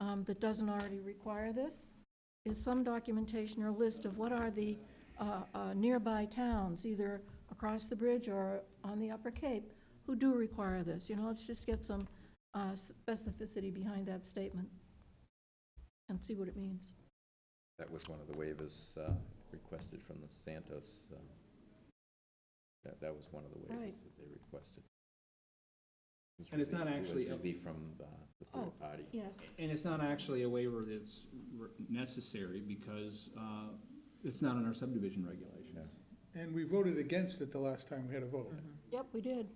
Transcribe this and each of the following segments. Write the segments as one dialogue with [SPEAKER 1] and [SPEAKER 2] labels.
[SPEAKER 1] um, that doesn't already require this is some documentation or list of what are the uh, uh, nearby towns, either across the bridge or on the Upper Cape, who do require this. You know, let's just get some uh, specificity behind that statement and see what it means.
[SPEAKER 2] That was one of the waivers uh, requested from the Santos. uh, That, that was one of the
[SPEAKER 1] Right.
[SPEAKER 2] waivers that they requested. It was
[SPEAKER 3] And it's not
[SPEAKER 2] relief- it was
[SPEAKER 3] actually a-
[SPEAKER 2] relief from uh, the
[SPEAKER 1] Oh.
[SPEAKER 2] third party.
[SPEAKER 1] Yes,
[SPEAKER 3] And it's not actually a waiver that's re- necessary because uh, it's not in our subdivision regulations.
[SPEAKER 4] And we voted against it the last time we had a vote.
[SPEAKER 1] yep, we did.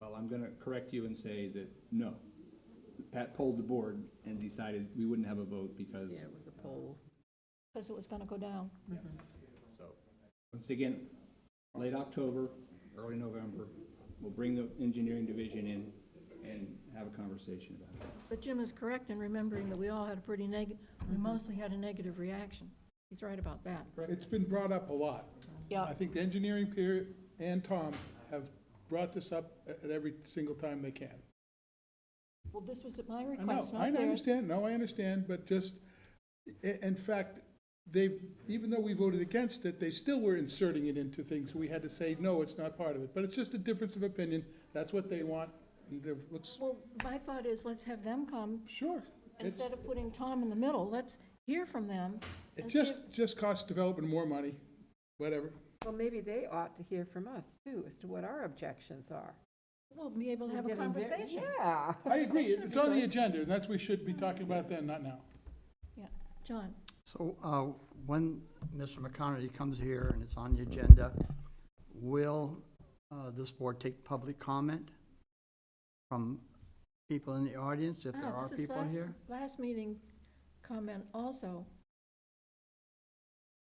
[SPEAKER 3] Well, I'm gonna correct you and say that, no. Pat polled the board and decided we wouldn't have a vote because,
[SPEAKER 5] Yeah, it was a poll.
[SPEAKER 1] Because it was going to go down.
[SPEAKER 6] Mm-hmm.
[SPEAKER 3] so, once again, late October, early November, we'll bring the engineering division in and have a conversation about it.
[SPEAKER 1] But Jim is correct in remembering that we all had a pretty neg, we
[SPEAKER 4] Mm-hmm.
[SPEAKER 1] mostly had a negative reaction. He's right about that.
[SPEAKER 4] It's been brought up a lot. I
[SPEAKER 1] Yeah,
[SPEAKER 4] think the engineering peer and Tom have brought this up a- at every single time they can.
[SPEAKER 1] well, this was at my
[SPEAKER 4] I know,
[SPEAKER 1] request,
[SPEAKER 4] I
[SPEAKER 1] not theirs.
[SPEAKER 4] understand, no, I understand, but just, i- in fact, they've, even though we voted against it, they still were inserting it into things. We had to say, no, it's not part of it, but it's just a difference of opinion, that's what they want, and it looks,
[SPEAKER 1] Well, my thought is, let's have them come,
[SPEAKER 4] sure. It's-
[SPEAKER 1] instead of putting Tom in the middle, let's hear from them.
[SPEAKER 4] It
[SPEAKER 1] and see if-
[SPEAKER 4] just, just costs development more money, whatever.
[SPEAKER 5] Well, maybe they ought to hear from us too, as to what our objections are.
[SPEAKER 1] We'll be able to have a
[SPEAKER 5] We're getting very-
[SPEAKER 1] conversation.
[SPEAKER 5] Yeah.
[SPEAKER 4] I agree, it's on the agenda, and that's, we should be talking about it then, not now.
[SPEAKER 1] Yeah, John,
[SPEAKER 7] So uh, when Mr. McConerty comes here and it's on the agenda, will uh, this board take public comment from people in the audience, if there
[SPEAKER 1] Ah,
[SPEAKER 7] are
[SPEAKER 1] this is
[SPEAKER 7] people
[SPEAKER 1] last-
[SPEAKER 7] here?
[SPEAKER 1] Last meeting comment also.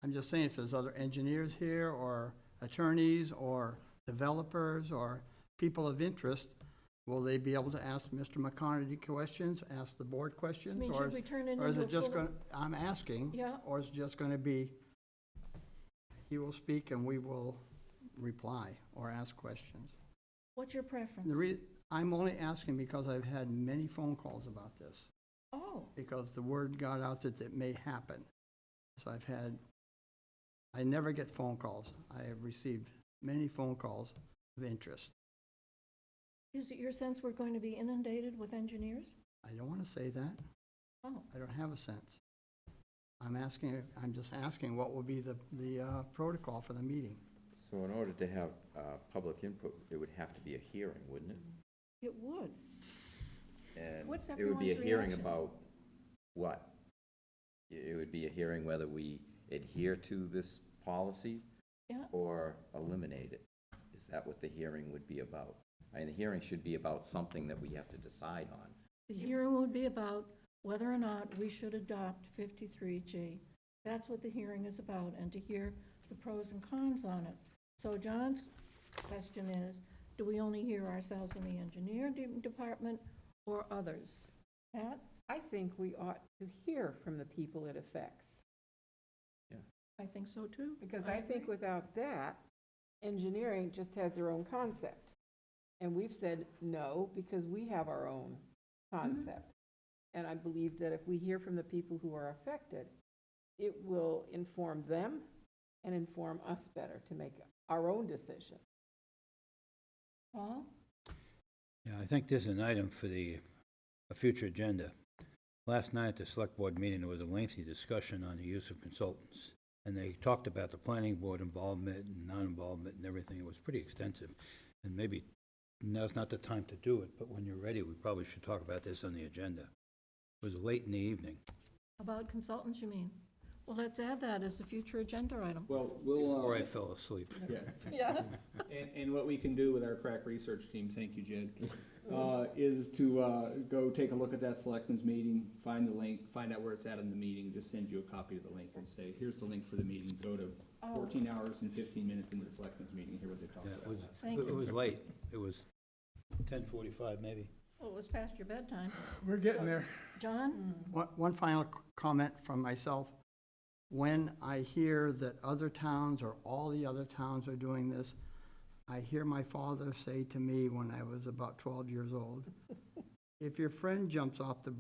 [SPEAKER 7] I'm just saying, if there's other engineers here, or attorneys, or developers, or people of interest, will they be able to ask Mr. McConerty questions, ask the board
[SPEAKER 1] I
[SPEAKER 7] questions?
[SPEAKER 1] mean,
[SPEAKER 7] or
[SPEAKER 1] should we turn it
[SPEAKER 7] Or is
[SPEAKER 1] into a
[SPEAKER 7] it just
[SPEAKER 1] full-
[SPEAKER 7] going, to I'm asking.
[SPEAKER 1] Yeah.
[SPEAKER 7] Or is it just going to be, he will speak and we will reply or ask questions?
[SPEAKER 1] What's your preference?
[SPEAKER 7] The re, I'm only asking because I've had many phone calls about this,
[SPEAKER 1] Oh,
[SPEAKER 7] because the word got out that it may happen. So I've had, I never get phone calls. I have received many phone calls of interest.
[SPEAKER 1] is it your sense we're going to be inundated with engineers?
[SPEAKER 7] I don't want to say that.
[SPEAKER 1] Oh,
[SPEAKER 7] I don't have a sense. I'm asking, I'm just asking what will be the, the uh, protocol for the meeting.
[SPEAKER 2] So in order to have uh, public input, it would have to be a hearing, wouldn't it?
[SPEAKER 1] it would.
[SPEAKER 2] And
[SPEAKER 1] What's
[SPEAKER 2] It would be a
[SPEAKER 1] everyone's
[SPEAKER 2] hearing
[SPEAKER 1] reaction?
[SPEAKER 2] about what? It it would be a hearing whether we adhere to this policy
[SPEAKER 1] Yeah,
[SPEAKER 2] or eliminate it? Is that what the hearing would be about? I mean, the hearing should be about something that we have to decide on.
[SPEAKER 1] the hearing would be about whether or not we should adopt 53G. That's what the hearing is about, and to hear the pros and cons on it. So John's question is, do we only hear ourselves in the engineer de- department or others? Pat,
[SPEAKER 5] I think we ought to hear from the people it affects,
[SPEAKER 1] I think so too.
[SPEAKER 5] because I think without that, engineering just has their own concept. And we've said no, because we have our own concept.
[SPEAKER 1] Mm-hmm.
[SPEAKER 5] And I believe that if we hear from the people who are affected, it will inform them and inform us better to make our own decision.
[SPEAKER 1] Paul,
[SPEAKER 6] Yeah, I think this is an item for the, a future agenda. Last night at the select board meeting, there was a lengthy discussion on the use of consultants. And they talked about the planning board involvement and non-involvement and everything. It was pretty extensive. And maybe now's not the time to do it, but when you're ready, we probably should talk about this on the agenda. It was late in the evening.
[SPEAKER 1] about consultants, you mean? Well, let's add that as a future agenda item.
[SPEAKER 3] Well, we'll. uh,
[SPEAKER 6] Before I fell asleep.
[SPEAKER 3] Yeah.
[SPEAKER 1] Yeah.
[SPEAKER 3] And, and what we can do with our crack research team, thank you, Jed, uh, is to, uh, go take a look at that selectmen's meeting, find the link, find out where it's at in the meeting, just send you a copy of the link and say, here's the link for the meeting, go to
[SPEAKER 1] Oh.
[SPEAKER 3] fourteen hours and fifteen minutes into the selectmen's meeting, hear what they talked
[SPEAKER 6] Yeah, it
[SPEAKER 3] about.
[SPEAKER 6] was,
[SPEAKER 1] Thank
[SPEAKER 6] it
[SPEAKER 1] you.
[SPEAKER 6] was late. It was ten forty-five, maybe.
[SPEAKER 1] Well, it was past your bedtime.
[SPEAKER 4] We're getting there.
[SPEAKER 1] John,
[SPEAKER 7] One, one final c- comment from myself. When I hear that other towns or all the other towns are doing this, I hear my father say to me when I was about twelve years old, if your friend jumps off the